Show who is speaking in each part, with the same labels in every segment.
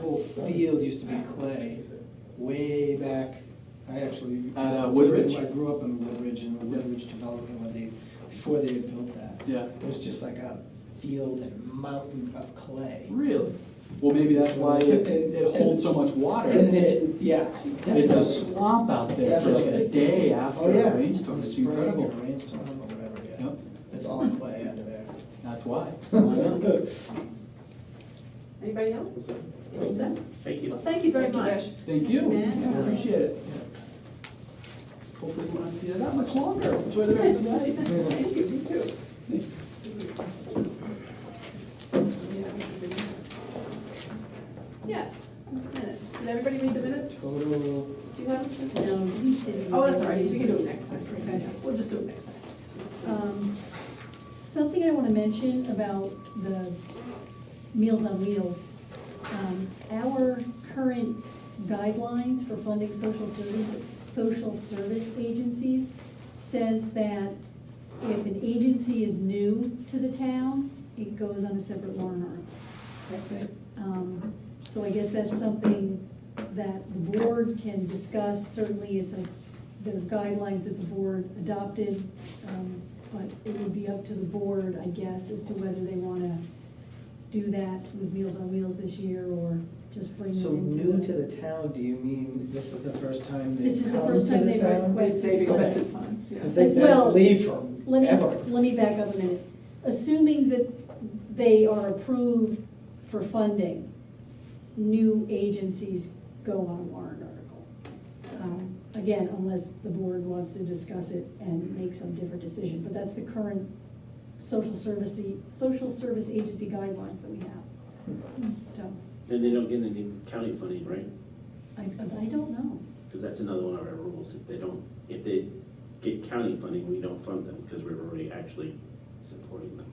Speaker 1: whole field used to be clay, way back, I actually.
Speaker 2: At, uh, Woodridge?
Speaker 1: I grew up in Woodridge, in the Woodridge development, when they, before they had built that.
Speaker 2: Yeah.
Speaker 1: It was just like a field and mountain of clay.
Speaker 2: Really? Well, maybe that's why it, it holds so much water.
Speaker 1: And it, yeah.
Speaker 2: It's a swamp out there for like a day after
Speaker 1: Oh, yeah.
Speaker 2: a rainstorm, it's
Speaker 1: Spring or
Speaker 2: incredible.
Speaker 1: Rainstorm or whatever, yeah.
Speaker 2: Yep,
Speaker 1: It's all clay under there.
Speaker 2: that's why. I know.
Speaker 3: Anybody else? That's it.
Speaker 4: Thank
Speaker 3: Well,
Speaker 4: you.
Speaker 3: thank you very much.
Speaker 2: Thank you,
Speaker 3: Yeah.
Speaker 2: appreciate it. Hopefully we won't have to do that that much longer, enjoy the rest of the night.
Speaker 3: Thank you, me too.
Speaker 2: Thanks.
Speaker 3: Yes, minutes. Did everybody read the minutes?
Speaker 1: Total
Speaker 3: Do you have them?
Speaker 5: No, he's doing.
Speaker 3: Oh, that's all right, we can do it next time. We'll just do it next time.
Speaker 5: Um, Something I want to mention about the Meals on Wheels. Um, Our current guidelines for funding social service, social service agencies says that if an agency is new to the town, it goes on a separate warrant article.
Speaker 3: That's it.
Speaker 5: Um, So I guess that's something that the board can discuss, certainly it's a, there are guidelines that the board adopted, um, but it would be up to the board, I guess, as to whether they want to do that with Meals on Wheels this year or just bring it
Speaker 1: So
Speaker 5: into.
Speaker 1: new to the town, do you mean this is the first time
Speaker 5: This
Speaker 1: they've
Speaker 5: is the
Speaker 1: come to
Speaker 5: first time
Speaker 1: the
Speaker 5: they've
Speaker 1: town?
Speaker 5: requested-
Speaker 3: They requested funds, yeah.
Speaker 1: Because they've been
Speaker 5: Well,
Speaker 1: leave
Speaker 5: Let
Speaker 1: from
Speaker 5: me,
Speaker 1: ever.
Speaker 5: let me back up a minute. Assuming that they are approved for funding, new agencies go on a warrant article. Um, Again, unless the board wants to discuss it and make some different decision, but that's the current social service, social service agency guidelines that we have. So,
Speaker 4: And they don't get any county funding, right?
Speaker 5: I, I don't know.
Speaker 4: Because that's another one of our rules. If they don't, if they get county funding, we don't fund them because we're already actually supporting them.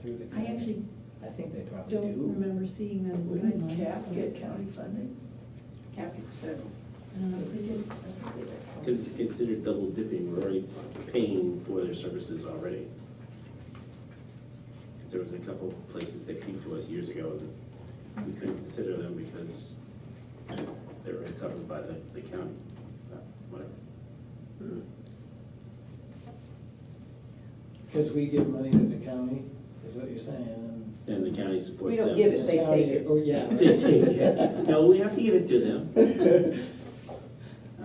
Speaker 1: through the
Speaker 5: I
Speaker 1: county.
Speaker 5: actually
Speaker 1: I think they probably
Speaker 5: don't
Speaker 1: do.
Speaker 5: remember seeing that.
Speaker 6: Wouldn't
Speaker 5: guideline.
Speaker 6: CAP get county funding?
Speaker 3: Cap gets federal.
Speaker 5: I don't know.
Speaker 6: They did, I think they did.
Speaker 4: Because it's considered double dipping. We're already paying for their services already. There was a couple places that came to us years ago and we couldn't consider them because they were covered by the, the county, Uh, whatever.
Speaker 1: Because we give money to the county, is what you're saying. and-
Speaker 4: Then the county supports
Speaker 3: We
Speaker 4: them.
Speaker 3: don't give it, they take it.
Speaker 1: Oh, yeah. right.
Speaker 4: They take it. No, we have to give it to them.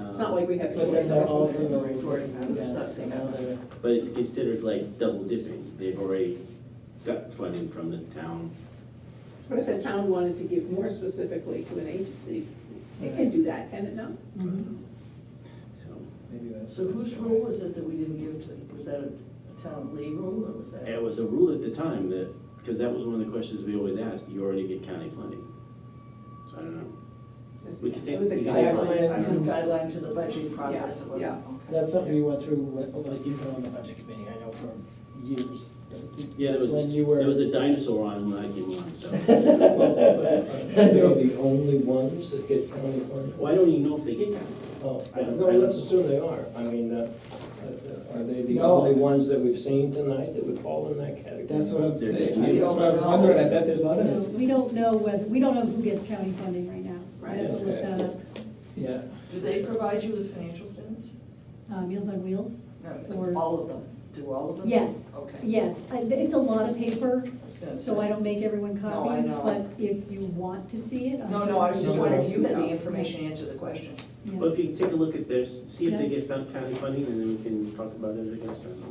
Speaker 3: It's not like we have. a
Speaker 1: But then
Speaker 3: choice.
Speaker 1: they're also,
Speaker 6: Reporting, I'm
Speaker 1: yeah,
Speaker 6: not
Speaker 1: so
Speaker 6: saying
Speaker 1: now
Speaker 6: that.
Speaker 1: they're,
Speaker 4: Um, But it's considered like double dipping. They've already got funding from the town.
Speaker 3: But if the town wanted to give more specifically to an agency, they can do that, can it not?
Speaker 4: So
Speaker 1: maybe that's.
Speaker 6: So whose rule was it that we didn't give to, them? was that a a town lead rule or was that?
Speaker 4: it was a rule at the time that, because that was one of the questions we always asked, you already get county funding. So I don't know. We can take-
Speaker 3: It was a
Speaker 4: we can
Speaker 1: take-
Speaker 3: guideline.
Speaker 4: I
Speaker 6: It's a
Speaker 4: don't know.
Speaker 6: guideline to the budgeting process, it
Speaker 3: Yeah,
Speaker 6: wasn't.
Speaker 1: That's something you went through, with- like you've been on the budget committee, I know for years.
Speaker 4: Yeah, there
Speaker 1: That's
Speaker 4: was,
Speaker 1: when you were.
Speaker 4: there was a dinosaur on when I came on, so.
Speaker 7: They're the only ones that get county funding?
Speaker 4: Well, I don't even know if they get county.
Speaker 7: Oh,
Speaker 4: I don't-
Speaker 7: no, let's assume they are. I mean, uh, are they the
Speaker 1: No.
Speaker 7: only ones that we've seen tonight that would fall in that category?
Speaker 1: That's what I'm
Speaker 4: They're just
Speaker 1: saying. I
Speaker 4: new.
Speaker 1: that's what I was wondering, I bet there's
Speaker 5: No,
Speaker 1: others.
Speaker 5: We don't know whether, we don't know who gets county funding right now. I have to look that up.
Speaker 1: Yeah.
Speaker 6: Do they provide you with financial statements?
Speaker 5: Uh, Meals on Wheels?
Speaker 6: No,
Speaker 5: Or-
Speaker 6: all of them, do all of them?
Speaker 5: Yes.
Speaker 6: Okay.
Speaker 5: Yes, I- it's a lot of paper,
Speaker 6: I was gonna
Speaker 5: so
Speaker 6: say.
Speaker 5: I don't make everyone
Speaker 6: No, I
Speaker 5: copies,
Speaker 6: know.
Speaker 5: but if you want to see it, I'm
Speaker 6: No, no, I was just
Speaker 1: No,
Speaker 6: wondering if you had
Speaker 3: no.
Speaker 6: the information to answer the question.
Speaker 5: Yeah.
Speaker 4: Well, if you take a look at this, see if they
Speaker 5: Yeah.
Speaker 4: get found county funding, and then we can talk about it against them.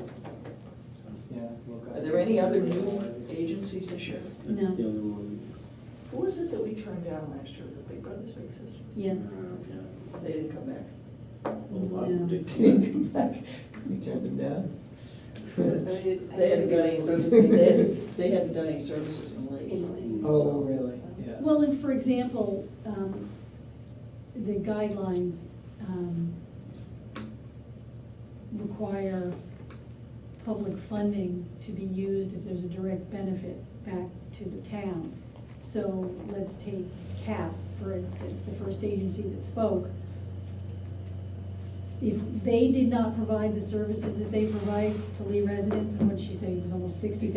Speaker 1: Yeah. look, I
Speaker 6: Are there any
Speaker 1: guess
Speaker 6: other
Speaker 1: they're
Speaker 6: new
Speaker 1: ones.
Speaker 6: agencies this year?
Speaker 4: That's
Speaker 5: No.
Speaker 4: the only one.
Speaker 6: Who was it that we turned down last year, the Big Brothers Big Sisters?
Speaker 5: Yes.
Speaker 4: Uh,
Speaker 6: They didn't come back.
Speaker 4: yeah. Well, I would
Speaker 5: Yeah.
Speaker 4: think-
Speaker 1: You turned them down?
Speaker 6: They hadn't done any services, they hadn't, they hadn't done any services in Lee.
Speaker 1: Oh, really? Yeah.
Speaker 5: Well, and for example, um, the guidelines um, require public funding to be used if there's a direct benefit back to the town. So let's take CAP, for instance, the first agency that spoke. If they did not provide the services that they provide to Lee residents, and what she said was almost sixty